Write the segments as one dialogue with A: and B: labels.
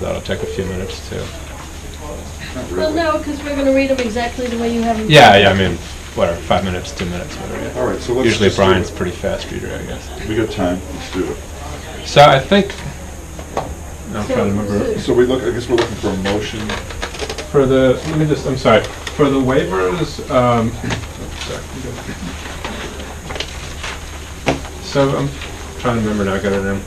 A: that'll take a few minutes to,
B: Well, no, because we're going to read them exactly the way you have them.
A: yeah, yeah, I mean, whatever, five minutes, two minutes, whatever.
C: All right, so let's
A: Usually
C: just do it.
A: Brian's pretty fast reader, I guess.
C: We got time, let's do it.
A: So I think, I'm trying to remember,
C: So we look, I guess we're looking for a motion.
A: for the, let me just, I'm sorry, for the waivers, um, sorry, I'm good. so I'm trying to remember now, I got it in.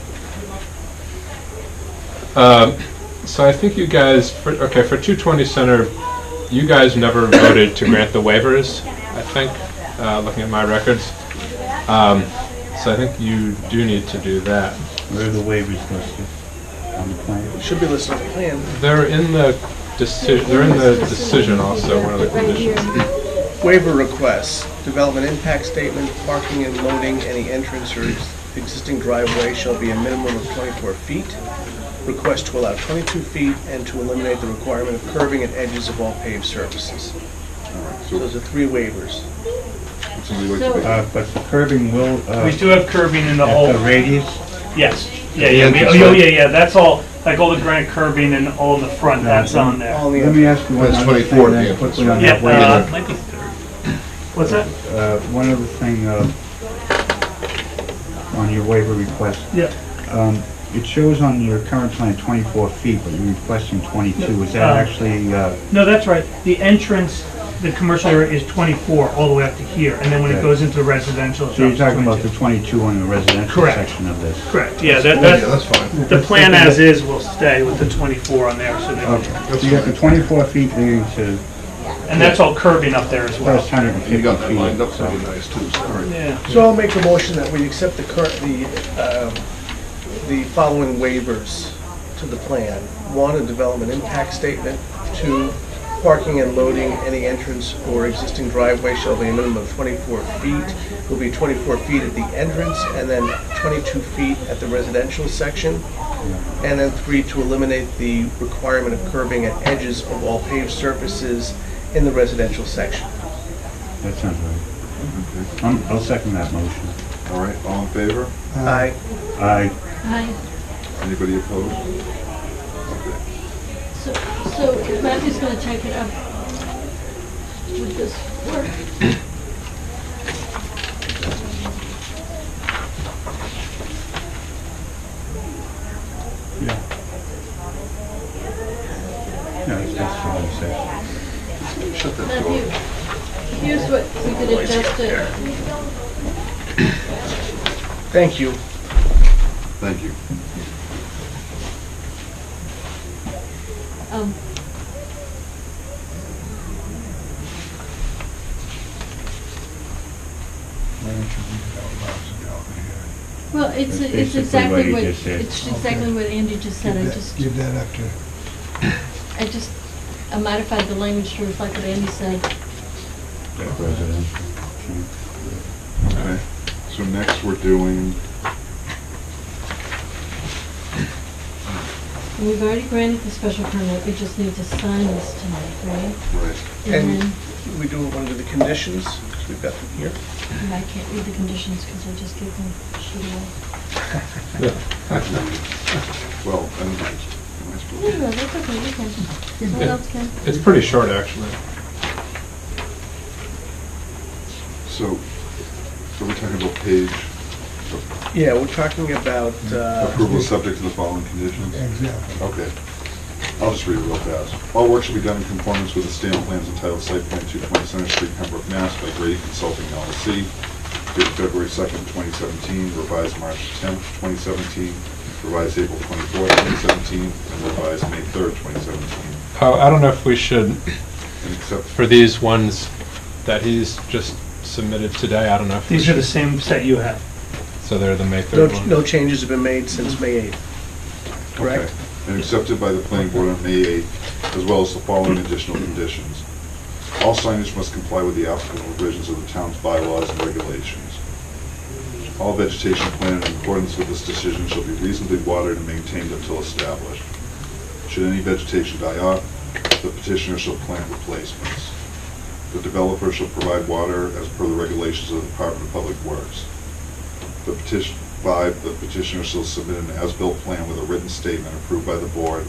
A: Um, So I think you guys, for, okay, for 220 Center, you guys never voted to grant the waivers, I think, uh, looking at my records. Um, So I think you do need to do that.
D: Where are the waivers listed on the plan?
E: Should be listed on the plan.
A: They're in the decision, they're in the decision also, one of the conditions.
E: Waiver requests, development impact statement, parking and loading, any entrance or ex- existing driveway shall be a minimum of 24 feet. Request to allow 22 feet and to eliminate the requirement of curving at edges of all paved surfaces.
C: All right,
E: So
C: so
E: those are three waivers.
C: would somebody like to make,
D: Uh, but the curbing will, uh,
F: We do have curbing in the
D: at
F: whole,
D: the radius,
F: yes, yeah, yeah, we- oh, yeah, yeah, yeah, that's all, like all the granite curbing and all the front, that's on there.
E: All the
D: let me ask you one
C: That's
D: other thing
C: 24 at the
D: then
C: entrance.
D: quickly on
F: Yeah,
D: that
F: uh,
D: waiver.
F: might be third. What's that?
D: Uh, one other thing, uh, on your waiver request.
F: Yeah.
D: Um, it shows on your current plan twenty-four feet, but you're requesting twenty-two. Is
F: Uh,
D: that actually, uh,
F: No, that's right, the entrance, the commercial area is 24 all the way up to here, and then when it
D: Okay.
F: goes into the residential, it's
D: so you're
F: up to
D: talking about the
F: 22.
D: twenty-two on the residential
F: Correct.
D: section of this?
F: Correct, yeah, that, that,
C: fine.
F: the plan as is will stay with the 24 on there, so that,
D: Okay, so you have the twenty-four feet leading to
F: and that's all curbing up there as well.
D: first hundred and
C: You
D: fifty
C: got that lined up,
D: feet,
C: that'd be
D: so.
C: nice too, so, all right.
F: Yeah,
E: So I'll make a motion that we accept the current, the, um, the following waivers to the plan. One, a development impact statement. Two, parking and loading, any entrance or existing driveway shall be a minimum of 24 feet, will be 24 feet at the entrance, and then 22 feet at the residential section. And then three, to eliminate the requirement of curbing at edges of all paved surfaces in the residential section.
D: That sounds right. I'm- I'll second that motion.
C: All right, all in favor?
E: Aye.
D: Aye.
B: Hi.
C: Anybody opposed? Okay.
B: So, so Matthew's going to take it up with this work.
D: No, it's just for the section.
C: Shut that
B: Matthew,
C: door.
B: here's what we could adjust it.
E: Thank you.
C: Thank you.
B: Um, Well, it's,
D: That's
B: it's
D: basically what
B: exactly
D: you
B: what,
D: just said.
B: it's exactly what Andy just said. I just,
G: Give that up to,
B: I just, I modified the language to reflect what Andy said.
D: Residential.
C: Okay, so next we're doing,
B: And We've already granted the special permit, we just need to sign this tonight, right?
C: right,
B: And
E: And-
B: then,
E: We do it under the conditions, 'cause we've got them here.
B: and I can't read the conditions because I just gave them sheet one.
C: well, I don't know. Am I supposed
B: No,
C: to-
B: no, that's okay, you can. Someone
A: Yeah.
B: else can.
A: It's pretty short, actually.
C: So, so we're talking about page,
E: Yeah, we're talking about, uh,
C: approval subject to the following conditions?
G: exactly.
C: Okay. I'll just read it real fast. All work should be done in conformance with the standard plans entitled Site Plan 220 Center Street, Pembroke, Mass. by Grady Consulting LLC, dated February 2nd, 2017, revised March 10th, 2017, revised April 24th, 2017, and revised May 3rd, 2017,
A: Oh, I don't know if we should,
C: and accept
A: for these ones that he's just submitted today, I don't know if. we
F: these are the
A: should-
F: same set you have.
A: So they're the May
E: no,
A: 3rd one.
E: no changes have been made since May 8th. Correct?
C: Okay. And accepted by the planning board on May 8th, as well as the following additional conditions. All signage must comply with the applicable provisions of the town's bylaws and regulations. All vegetation planted in accordance with this decision shall be reasonably watered and maintained until established. Should any vegetation die off, the petitioner shall plant replacements. The developer shall provide water as per the regulations of the Department of Public Works. The petition, five, the petitioner shall submit an as-built plan with a written statement approved by the board